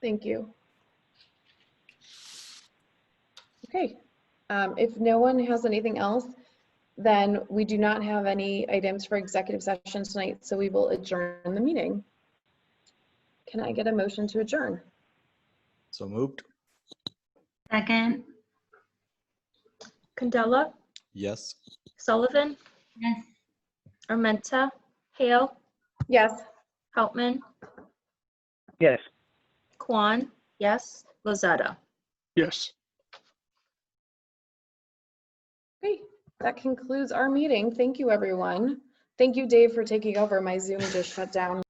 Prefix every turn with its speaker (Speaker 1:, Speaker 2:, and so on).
Speaker 1: Thank you. Okay, um, if no one has anything else, then we do not have any items for executive session tonight, so we will adjourn the meeting. Can I get a motion to adjourn?
Speaker 2: So moved.
Speaker 3: Second,
Speaker 4: Candela,
Speaker 2: Yes.
Speaker 4: Sullivan,
Speaker 3: yes.
Speaker 4: Armenta, Hale,
Speaker 1: Yes.
Speaker 4: Hauptman,
Speaker 5: Yes.
Speaker 4: Kwan, yes, Lozada.
Speaker 5: Yes.
Speaker 1: Okay, that concludes our meeting. Thank you, everyone. Thank you, Dave, for taking over. My Zoom just shut down.